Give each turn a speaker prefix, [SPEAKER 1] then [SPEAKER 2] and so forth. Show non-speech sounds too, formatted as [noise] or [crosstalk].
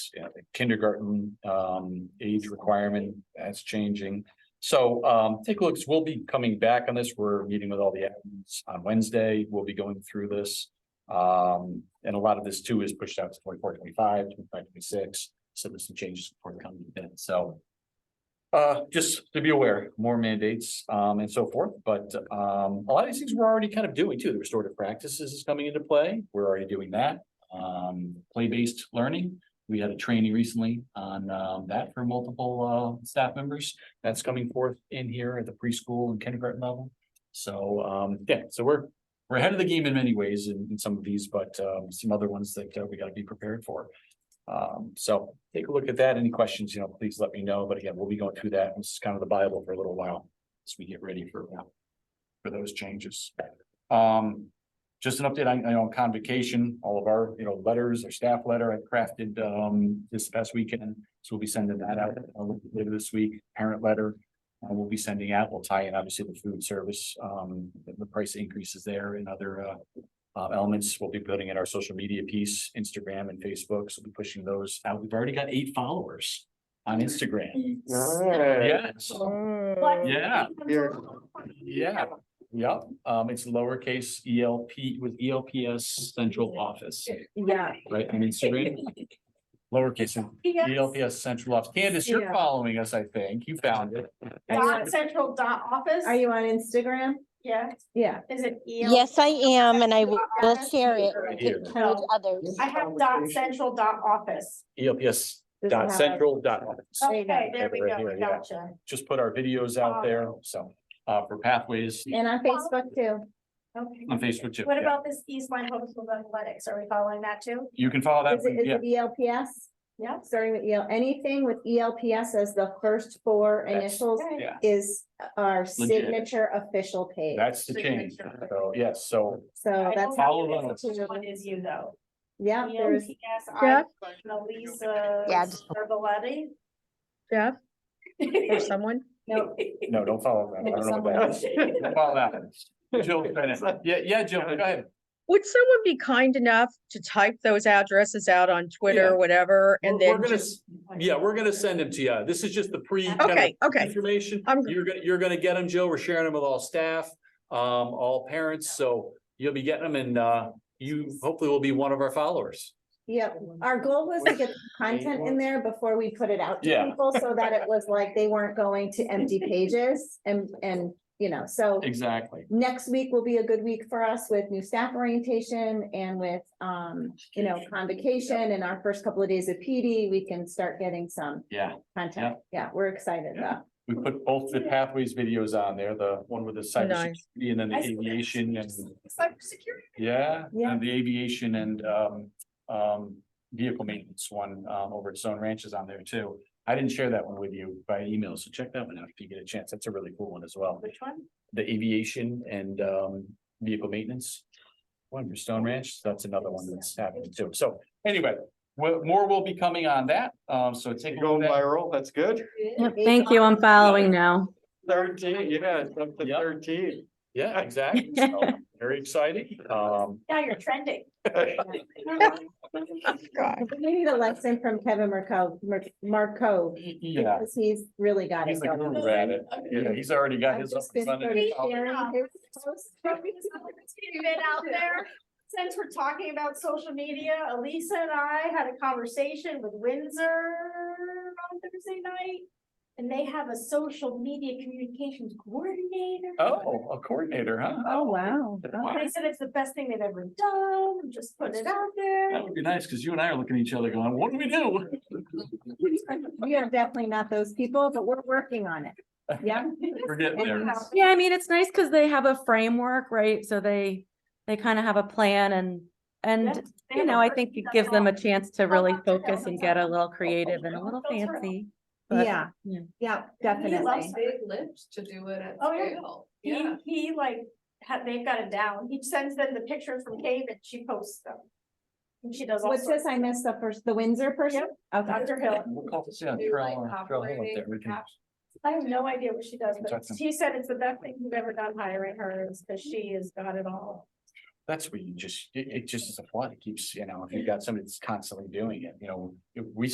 [SPEAKER 1] yeah, the kindergarten um age requirement, that's changing. So um take a look, 'cause we'll be coming back on this. We're meeting with all the admins on Wednesday. We'll be going through this. Um, and a lot of this too is pushed out to 24, 25, 25, 26. so there's some changes before the coming event, so. Uh, just to be aware, more mandates um and so forth, but um a lot of these things we're already kind of doing too. The restorative practices is coming into play. We're already doing that. Um, play-based learning, we had a training recently on um that for multiple uh staff members. That's coming forth in here at the preschool and kindergarten level. So um, yeah, so we're, we're ahead of the game in many ways in in some of these, but um some other ones that uh, we gotta be prepared for. Um, so take a look at that. Any questions, you know, please let me know. But again, we'll be going through that. This is kind of the Bible for a little while as we get ready for uh, for those changes. Um, just an update, on I know convocation, all of our, you know, letters, our staff letter I crafted um this past weekend. So we'll be sending that out uh, later this week, parent letter. uh, we'll be sending out, we'll tie in obviously the food service, um, the- the price increases there and other uh. Uh, elements, we'll be putting in our social media piece, Instagram and Facebook, so we'll be pushing those out. We've already got eight followers on Instagram. Yes, yeah. Yeah, yep, um, it's lowercase ELP with E ELPS central office,
[SPEAKER 2] Yeah.
[SPEAKER 1] right, on Instagram? Lowercase E ELPS central office, Candace, you're
[SPEAKER 2] Yeah.
[SPEAKER 1] following us, I think, you found it.
[SPEAKER 3] Dot central dot office?
[SPEAKER 2] Are you on Instagram?
[SPEAKER 3] Yeah,
[SPEAKER 2] Yeah.
[SPEAKER 3] is it? E EL?
[SPEAKER 4] Yes, I am, and I will share it
[SPEAKER 1] Right here.
[SPEAKER 4] with others.
[SPEAKER 3] I have dot central dot office.
[SPEAKER 1] E ELPS
[SPEAKER 2] Does it
[SPEAKER 1] dot
[SPEAKER 2] have- Oh.
[SPEAKER 1] central dot office,
[SPEAKER 2] There you go.
[SPEAKER 3] Okay, there we
[SPEAKER 1] Right here,
[SPEAKER 3] go,
[SPEAKER 1] yeah.
[SPEAKER 3] gotcha.
[SPEAKER 1] just put our videos out there, so, uh, for pathways
[SPEAKER 2] And on Facebook too.
[SPEAKER 3] Okay.
[SPEAKER 1] on Facebook too.
[SPEAKER 3] What
[SPEAKER 1] yeah.
[SPEAKER 3] about this East Line Homeschool Athletics? Are we following that too?
[SPEAKER 1] You can follow that,
[SPEAKER 2] Is it, is
[SPEAKER 1] yeah,
[SPEAKER 2] it E ELPS?
[SPEAKER 3] Yeah.
[SPEAKER 2] Starting with EL, anything with E ELPS as the first four
[SPEAKER 1] That's-
[SPEAKER 2] initials
[SPEAKER 3] Okay.
[SPEAKER 1] yeah,
[SPEAKER 2] is our
[SPEAKER 1] Legit.
[SPEAKER 2] signature official page.
[SPEAKER 1] that's the change, so, yes, so,
[SPEAKER 4] Oh,
[SPEAKER 2] So
[SPEAKER 3] I
[SPEAKER 2] that's,
[SPEAKER 3] don't
[SPEAKER 1] Follow
[SPEAKER 3] know if
[SPEAKER 1] those.
[SPEAKER 3] Which one is you though? E
[SPEAKER 2] yeah, there's,
[SPEAKER 3] ELPS,
[SPEAKER 5] Yeah.
[SPEAKER 3] I, Melissa.
[SPEAKER 4] Yeah, just-
[SPEAKER 3] Servaletti? [laughs]
[SPEAKER 5] Jeff or someone?
[SPEAKER 2] no,
[SPEAKER 1] no, don't follow that, I don't know what that is. Don't Follow that, Jill,
[SPEAKER 2] [laughs]
[SPEAKER 1] yeah, yeah, Jill, go ahead.
[SPEAKER 5] Would someone be kind enough to type those addresses out on Twitter
[SPEAKER 1] Yeah.
[SPEAKER 5] or whatever and
[SPEAKER 1] We're-
[SPEAKER 5] then
[SPEAKER 1] we're gonna
[SPEAKER 5] just,
[SPEAKER 1] s- Yeah, we're gonna send them to you. This is just the pre. kind of
[SPEAKER 5] okay, okay.
[SPEAKER 1] Information.
[SPEAKER 5] I'm-
[SPEAKER 1] You're gonna, you're gonna get them, Joe. We're sharing them with all staff, um, all parents, so you'll be getting them and, uh, you hopefully will be one of our followers.
[SPEAKER 2] yeah. Our goal was
[SPEAKER 1] [laughs]
[SPEAKER 2] to get the content in there before we put it out to
[SPEAKER 1] Yeah.
[SPEAKER 2] people so that it was like they weren't going to
[SPEAKER 3] [laughs]
[SPEAKER 2] empty pages and, and, you know, so
[SPEAKER 1] Exactly.
[SPEAKER 2] next week will be a good week for us with new staff orientation and with, um, you know, convocation and our first couple of days of PD, we can start getting some
[SPEAKER 1] Yeah,
[SPEAKER 2] content. Yeah, we're excited
[SPEAKER 1] Yeah.
[SPEAKER 2] though.
[SPEAKER 1] we put both the pathways videos on there, the one with the
[SPEAKER 5] Nice.
[SPEAKER 1] cybersecurity and then the aviation and,
[SPEAKER 3] Cybersecurity.
[SPEAKER 1] yeah,
[SPEAKER 2] Yeah.
[SPEAKER 1] and the aviation and, um, um, vehicle maintenance one, um, over at Stone Ranch is on there too. I didn't share that one with you by email, so check that one out if you get a chance. That's a really cool one as well.
[SPEAKER 3] Which one?
[SPEAKER 1] the aviation and um vehicle maintenance. One for Stone Ranch, that's another one that's happening too. So anyway, wha- more will be coming on that. Um, so take. a look
[SPEAKER 6] Going
[SPEAKER 1] at that.
[SPEAKER 6] viral, that's good.
[SPEAKER 7] Thank you, I'm following now.
[SPEAKER 6] Thirteen, yeah, it's up to
[SPEAKER 1] Yep.
[SPEAKER 6] thirteen.
[SPEAKER 1] Yeah, exactly.
[SPEAKER 2] [laughs]
[SPEAKER 1] So, Very exciting. Um,
[SPEAKER 3] Now you're trending.
[SPEAKER 5] God.
[SPEAKER 2] We need a lesson from Kevin Marco, Mar- Marco,
[SPEAKER 1] yeah,
[SPEAKER 2] because he's really got it.
[SPEAKER 1] he's a
[SPEAKER 2] going.
[SPEAKER 1] guru at it. Yeah, he's already got
[SPEAKER 2] I've
[SPEAKER 1] his. up
[SPEAKER 2] just
[SPEAKER 1] and
[SPEAKER 2] been sort of
[SPEAKER 1] running. Oh,
[SPEAKER 2] sharing his posts.
[SPEAKER 3] Keep it out there. [laughs] Since we're talking about social media, Elisa and I had a conversation with Windsor on Thursday night. And they have a social media communications coordinator.
[SPEAKER 1] Oh, a coordinator, huh?
[SPEAKER 7] Oh, wow.
[SPEAKER 1] Wow.
[SPEAKER 3] They said it's the best thing they've ever done, I'm just putting it out there.
[SPEAKER 1] That would be nice, because you and I are looking at each other going, what do we do?
[SPEAKER 2] We are definitely not those people, but we're working
[SPEAKER 1] [laughs]
[SPEAKER 2] on it. Yeah.
[SPEAKER 1] We're getting there.
[SPEAKER 2] Anyhow,
[SPEAKER 7] Yeah, I mean, it's nice because they have a framework, right? So they, they kind of have a plan and, and, you know, I think it gives them a chance to really
[SPEAKER 3] Help them.
[SPEAKER 7] focus and get a little creative and a little
[SPEAKER 3] Help them.
[SPEAKER 7] fancy. but-
[SPEAKER 2] Yeah, yeah,
[SPEAKER 3] He
[SPEAKER 2] definitely.
[SPEAKER 3] loves it.
[SPEAKER 8] big lips to do it at
[SPEAKER 3] Oh, yeah.
[SPEAKER 8] scale.
[SPEAKER 3] He,
[SPEAKER 8] Yeah.
[SPEAKER 3] he like, had, they've got it down, he sends them the pictures from cave and she posts them. And she does all
[SPEAKER 2] What's this?
[SPEAKER 3] sorts.
[SPEAKER 2] I missed the first, the Windsor person? Okay.
[SPEAKER 3] Dr. Hill,
[SPEAKER 1] We'll call this, yeah,
[SPEAKER 8] Do, like,
[SPEAKER 1] Trail, Trail Hill up there. We
[SPEAKER 8] operating
[SPEAKER 1] can-
[SPEAKER 8] caps.
[SPEAKER 3] I have no idea what she does, but
[SPEAKER 1] Talk to him.
[SPEAKER 3] she said it's the best thing you've ever done hiring her, is because she has got it all.
[SPEAKER 1] That's where you just, it, it just is a flood. It keeps, you know, if you've got somebody that's constantly doing it, you know, if we